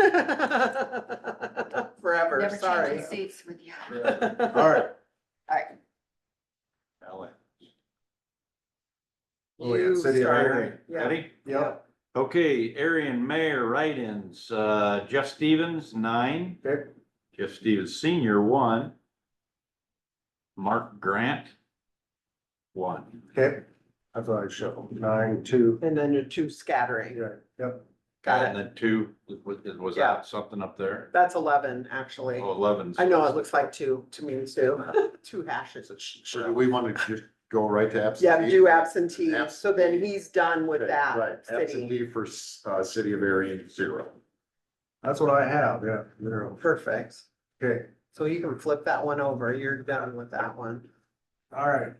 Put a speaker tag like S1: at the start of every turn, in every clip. S1: I'm sorry.
S2: Seats with you.
S1: All
S3: All right.
S2: All right.
S3: Oh, yeah, City of Marion.
S1: Yeah,
S4: Ready?
S3: Yep,
S4: Okay, Arian Mayor write-ins, uh, Jeff Stevens, nine,
S3: okay,
S4: Jeff Stevens Senior, one. Mark Grant, one.
S3: okay. I thought I shuffled nine, two,
S1: and then your two scattering.
S3: yeah, yep.
S1: Got
S4: And
S1: it.
S4: then two, was, was
S1: Yeah.
S4: that something up there?
S1: That's eleven, actually.
S4: Oh, eleven.
S1: I know it looks like two to me too. Two hashes.
S5: So do we want to just go right to absentee?
S1: Yeah, do absentee.
S5: Absentee.
S1: So then he's done with
S5: Okay, Right,
S1: that city.
S5: absentee for, s- uh, city of Aryan, zero.
S3: That's what I have, yeah, zero.
S1: Perfect.
S3: Okay,
S1: So you can flip that one over. You're done with that one.
S3: all right,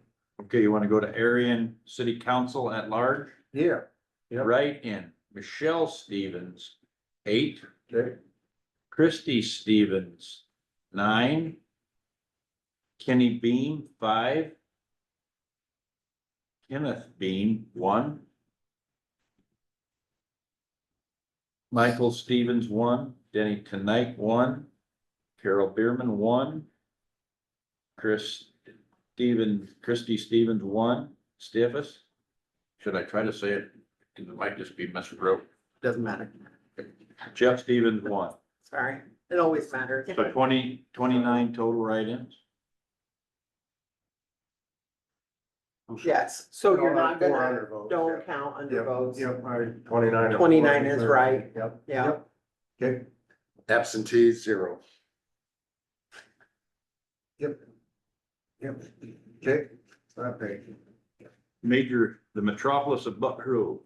S4: Okay, you wanna go to Arian City Council at large?
S3: yeah, Yep.
S4: Write-in, Michelle Stevens, eight.
S3: okay,
S4: Christy Stevens, nine. Kenny Beam, five. Kenneth Beam, one. Michael Stevens, one. Denny Tonight, one. Carol Bierman, one. Chris Stevens, Christy Stevens, one. Stiffus. Should I try to say it? 'Cause It might just be miswrote.
S1: Doesn't matter.
S4: Jeff Stevens, one.
S1: Sorry. It always matters.
S4: So 20 29 total write-ins?
S1: Yes. So you're
S3: Don't
S1: not
S3: have four
S1: gonna,
S3: under votes,
S1: don't
S3: yeah.
S1: count under
S3: Yep,
S1: votes.
S3: Yep, all right, twenty-nine.
S1: 29 is right.
S3: Yep.
S1: Yeah.
S3: yep. Okay,
S5: Absentee, zero.
S3: yep. Yep, okay, okay.
S4: Major, the metropolis of Buck Rule.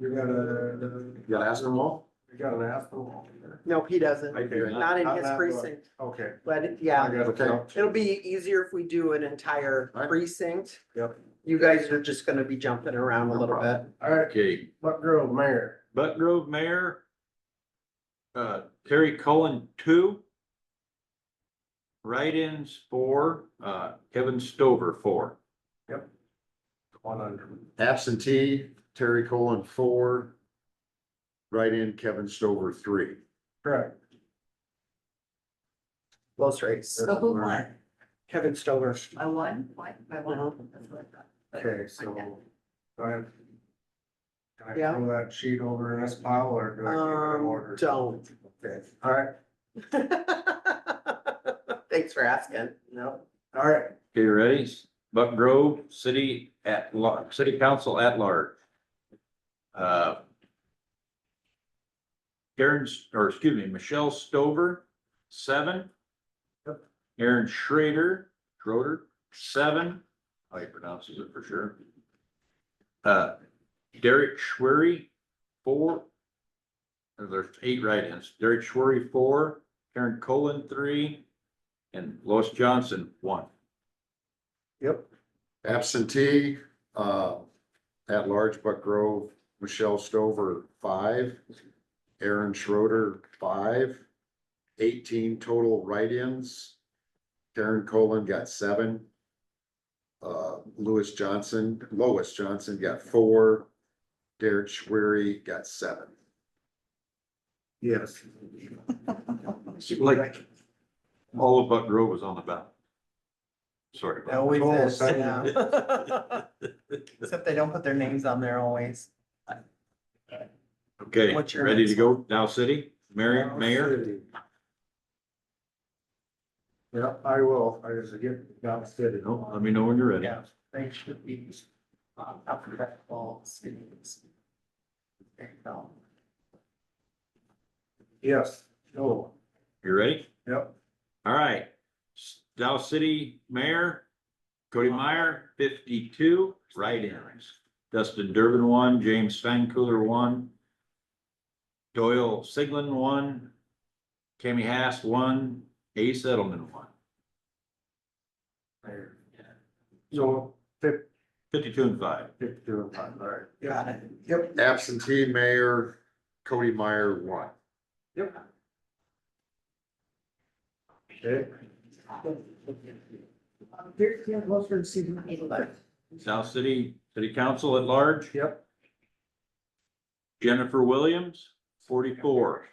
S3: You got a,
S5: You got Aspenwall?
S3: you got an asphalt here.
S1: No, he doesn't.
S4: I do not.
S1: Not in
S3: Not
S1: his
S3: that one.
S1: precinct.
S3: Okay.
S1: But it-
S3: I
S1: yeah,
S3: got it.
S1: it'll be easier if we do an entire
S5: Right.
S1: precinct.
S3: Yep.
S1: You guys are just gonna be jumping around a little bit.
S3: All right,
S4: Okay,
S3: Buck Grove Mayor,
S4: Buck Grove Mayor. Uh, Terry Cullen, two. Write-ins, four, uh, Kevin Stover, four.
S3: one under.
S5: Absentee, Terry Colon, four. Write-in, Kevin Stover, three.
S3: Correct.
S1: Close race.
S2: So who won?
S1: Kevin Stover.
S2: I won, what, I won. That's what I thought. But-
S3: Okay, so. do I have- Can I
S1: Yeah.
S3: throw that sheet over in this pile or do I keep it in
S1: Um,
S3: order?
S1: don't.
S3: Okay, all right,
S1: Thanks for asking. No.
S3: all right,
S4: Okay, ready? Buck Grove, city at large, city council at large. Uh. Karen, S- or excuse me, Michelle Stover, seven. Aaron Schrader, Schroeder, seven, how he pronounces it for sure. Uh, Derek Schwery, four. There's eight write-ins, Derek Schwery, four, Karen Colin, three, and Lois Johnson, one.
S3: yep,
S5: Absentee, uh, at large Buck Grove, Michelle Stover, five. Aaron Schroeder, five. Eighteen total write-ins. Karen Colon got seven. Uh, Lewis Johnson, Lois Johnson got four. Derek Schwery got seven.
S3: yes.
S4: Like, all of Buck Grove was on the ballot. Sorry about
S1: Always
S3: Cool,
S1: is,
S3: second.
S1: yeah. Except they don't put their names on there always.
S4: that. Okay,
S1: What's your
S4: ready to
S1: next
S4: go? Dow City, Mayor, Mayor,
S3: Yeah, I will, I just get, got city.
S4: No, let me know when you're ready.
S1: Yeah, they should be um, alphabetical cities. There you go.
S3: Yes, oh,
S4: You ready?
S3: yep,
S4: All right. Dow City Mayor, Cody Meyer, fifty-two, write-ins. Dustin Durbin, one, James Steinkühler, one. Doyle Siglin, one. Kami Haas, one, A Settlement, one.
S3: there. So, fif-
S4: Fifty-two and five.
S3: fifty-two and five, all right.
S1: Got it.
S3: Yep,
S5: Absentee Mayor Cody Meyer, one.
S3: yep. Okay,
S2: Here's the Western season.
S4: South City City Council at large,
S3: yep.
S4: Jennifer Williams, forty-four.